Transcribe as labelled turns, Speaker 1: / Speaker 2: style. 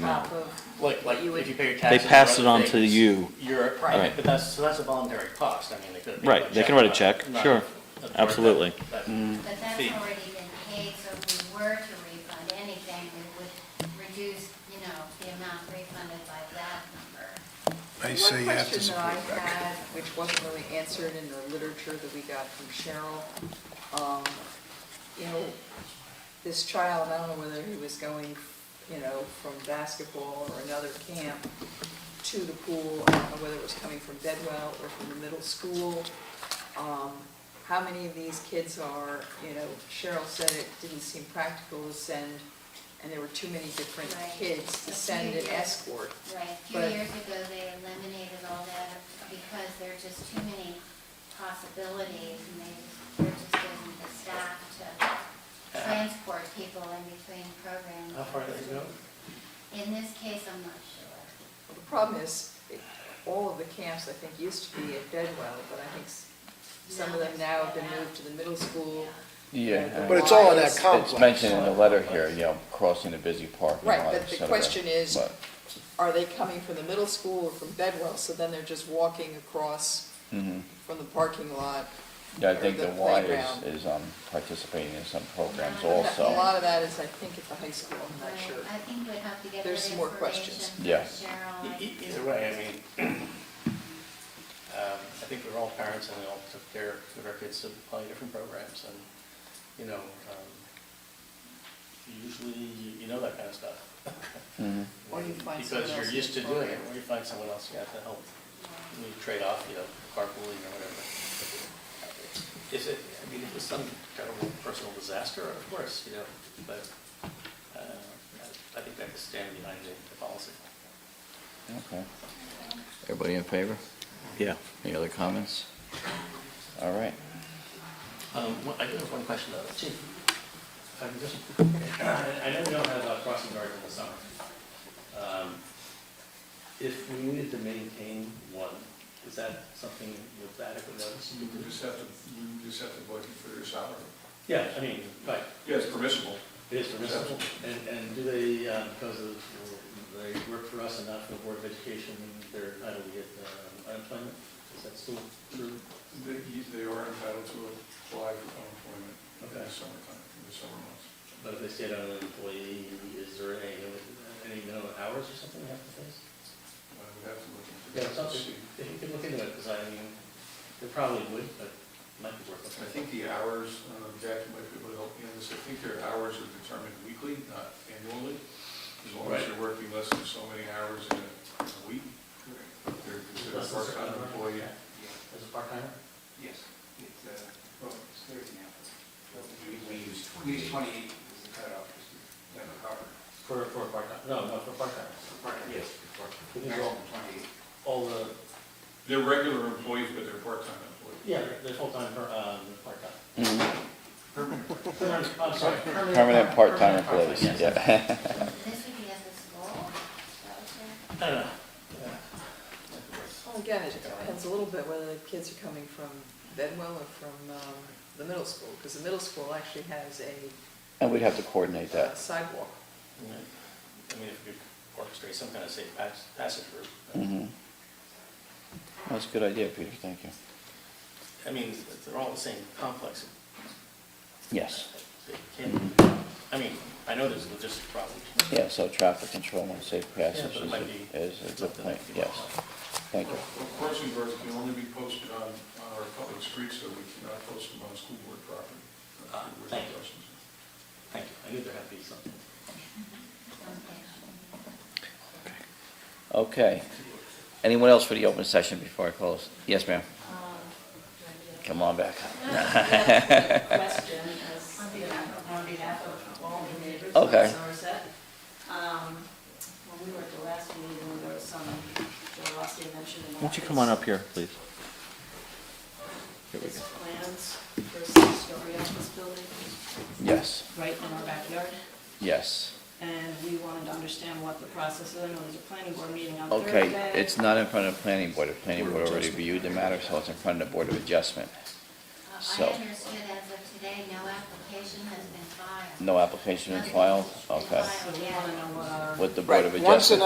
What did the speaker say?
Speaker 1: top of
Speaker 2: Like, like,
Speaker 1: what you
Speaker 2: if you
Speaker 1: would,
Speaker 2: pay your taxes. and
Speaker 3: pass
Speaker 2: other
Speaker 3: it on to
Speaker 2: things,
Speaker 3: you.
Speaker 2: You're,
Speaker 1: Right.
Speaker 2: right, but that's, so that's a voluntary cost, I mean, they could.
Speaker 3: Right, they can write a check,
Speaker 2: not-
Speaker 3: sure,
Speaker 2: not absorb that-
Speaker 3: absolutely. Mm-hmm.
Speaker 2: that-
Speaker 4: But that's
Speaker 2: Fee.
Speaker 4: already been paid, so if we were to refund anything, it would reduce, you know, the amount refunded by that number.
Speaker 5: I say you have to
Speaker 1: One question that I
Speaker 5: support Rec.
Speaker 1: had, which wasn't really answered in the literature that we got from Cheryl, um, you know, this child, I don't know whether he was going, you know, from basketball or another camp to the pool, I don't know whether it was coming from Bedwell or from the middle school. Um, How many of these kids are, you know, Cheryl said it didn't seem practical to send, and there were too many different
Speaker 4: Right.
Speaker 1: kids to send an escort.
Speaker 4: Right, a few
Speaker 1: But-
Speaker 4: years ago, they eliminated all that because there are just too many possibilities and they just, there just isn't the staff to transport people in between programs.
Speaker 2: How far do they go?
Speaker 4: In this case, I'm not sure.
Speaker 1: The problem is, it- all of the camps, I think, used to be at Bedwell, but I think s- some of them now have been moved to the middle school.
Speaker 6: Yeah,
Speaker 5: But
Speaker 6: uh,
Speaker 5: it's all in that
Speaker 1: It's
Speaker 5: complex.
Speaker 6: it's mentioned in the letter here, you know, crossing a busy park and all
Speaker 1: Right,
Speaker 6: that,
Speaker 1: but
Speaker 6: et
Speaker 1: the
Speaker 6: cetera.
Speaker 1: question is-
Speaker 6: But-
Speaker 1: Are they coming from the middle school or from Bedwell? So then they're just walking across
Speaker 6: mhm.
Speaker 1: from the parking lot.
Speaker 6: Yeah, I
Speaker 1: or
Speaker 6: think the Y
Speaker 1: playground.
Speaker 6: is, is um, participating in some programs
Speaker 1: But
Speaker 4: Yeah.
Speaker 1: A
Speaker 6: also.
Speaker 1: lot of that is, I think, at the high school, I'm not
Speaker 4: Right,
Speaker 1: sure.
Speaker 4: I think we'd have to get that
Speaker 1: There's some
Speaker 4: information
Speaker 1: more
Speaker 4: from
Speaker 1: questions.
Speaker 6: Yeah.
Speaker 4: Cheryl. I
Speaker 2: E- e- Either way, I mean, um, I think we're all parents and we all took care of our kids to probably different programs and, you know, um, usually you- you know that kind of stuff.
Speaker 6: Mhm.
Speaker 1: Or you find someone
Speaker 2: Because you're
Speaker 1: else
Speaker 2: used to
Speaker 1: in the
Speaker 2: doing it,
Speaker 1: program.
Speaker 2: or you find someone else you have to help. We trade off, you know, carpooling or whatever. Is it, I mean, if it's some terrible personal disaster, of course, you know, but uh, I think that could stand behind the the policy.
Speaker 6: Okay.
Speaker 2: E-
Speaker 6: Everybody in favor?
Speaker 3: Yeah.
Speaker 6: Any other comments? All right.
Speaker 2: Um, one- I do have one question though. Chief, if I can Um, just, I I know we don't have a crossing guard in the summer. Um, If we needed to maintain one, is that something with adequate notice?
Speaker 7: You would just have to, you would just have to budget for their salary.
Speaker 2: Yeah, I mean, right,
Speaker 7: Yeah, it's permissible.
Speaker 2: it is permissible. And, and do they, uh, because of, they work for us and not for the Board of Education, they're entitled to get um, unemployment? Is that still true?
Speaker 7: They, they are entitled to apply for unemployment in
Speaker 2: Okay.
Speaker 7: the summertime, in the summer months.
Speaker 2: But if they stay on an employee, is there any, any minimum hours or something they have to face?
Speaker 7: I would have to look into
Speaker 2: Yeah,
Speaker 7: that
Speaker 2: it's up
Speaker 7: to
Speaker 2: to
Speaker 7: see.
Speaker 2: If you could look into it, because I mean, it probably would, but might be worth
Speaker 7: I
Speaker 2: looking
Speaker 7: think the hours, uh, Jackie might be able to help me on this, I think their hours are determined weekly, not annually. As long as
Speaker 2: Right.
Speaker 7: you're working less than so many hours in a, in a week, they're
Speaker 2: Less
Speaker 7: considered
Speaker 2: than certain
Speaker 7: part-time
Speaker 2: number.
Speaker 7: employee.
Speaker 2: at. As a part-timer?
Speaker 8: Yes, it's, uh, well, it's thirty now. We use twenty. We use twenty-eight as the cutoff, just to have a cover.
Speaker 2: For, for a part-time, no, no, for part-time.
Speaker 8: Yes.
Speaker 2: We can
Speaker 8: Maximum
Speaker 2: go
Speaker 8: twenty-eight.
Speaker 2: all the,
Speaker 7: They're regular employees, but they're part-time employees.
Speaker 2: yeah, the full-time, per- um, part-time. Permanent, I'm sorry.
Speaker 6: Mm-hmm. Permanent part-time employees,
Speaker 2: Yes.
Speaker 6: yeah.
Speaker 4: This would be at the school, is that what you're?
Speaker 2: I don't know.
Speaker 1: Well, again, it depends a little bit whether the kids are coming from Bedwell or from um, the middle school, because the middle school actually has a
Speaker 6: And we'd have to coordinate
Speaker 1: uh,
Speaker 6: that.
Speaker 1: sidewalk.
Speaker 2: Yeah. I mean, if you could orchestrate some kind of safe pass- passage route.
Speaker 6: Mhm. That's a good idea, Peter, thank you.
Speaker 2: I mean, they're all the same complex.
Speaker 6: Yes,
Speaker 2: They can't, I mean, I know there's logistic problems.
Speaker 6: yeah, so traffic control and safe
Speaker 2: Yeah,
Speaker 6: passage
Speaker 2: but it might be
Speaker 6: is, is a good
Speaker 2: something
Speaker 6: point,
Speaker 2: that you
Speaker 6: yes,
Speaker 2: want.
Speaker 6: thank you.
Speaker 7: Crossing guards can only be posted on, on our public streets, so we cannot post them on school board property.
Speaker 2: Ah,
Speaker 7: With
Speaker 2: thank you.
Speaker 7: adjustments.
Speaker 2: Thank you, I knew there had to be something.
Speaker 6: Okay. Anyone else for the open session before I close? Yes, ma'am. Come on back.
Speaker 9: question as on behalf on behalf of all the neighbors
Speaker 6: Okay.
Speaker 9: in Somerset. Um, When we were at the last meeting, there was some, Joe Rossi mentioned about.
Speaker 3: Won't you come on up here, please?
Speaker 9: His his plans for a six-story office building
Speaker 6: Yes,
Speaker 9: right in our backyard.
Speaker 6: yes.
Speaker 9: And we wanted to understand what the process is. I know there's a planning board meeting on Thursday.
Speaker 6: Okay, it's not in front of the planning board. The planning board already reviewed the matter, so it's in front of the Board of Adjustment.
Speaker 4: Uh, I
Speaker 6: So-
Speaker 4: understood as of today, no application has been filed.
Speaker 6: No application been filed? Okay.
Speaker 4: Nothing's been filed yet.
Speaker 6: With the Board of
Speaker 10: Right.
Speaker 6: Adjustment?
Speaker 10: Once an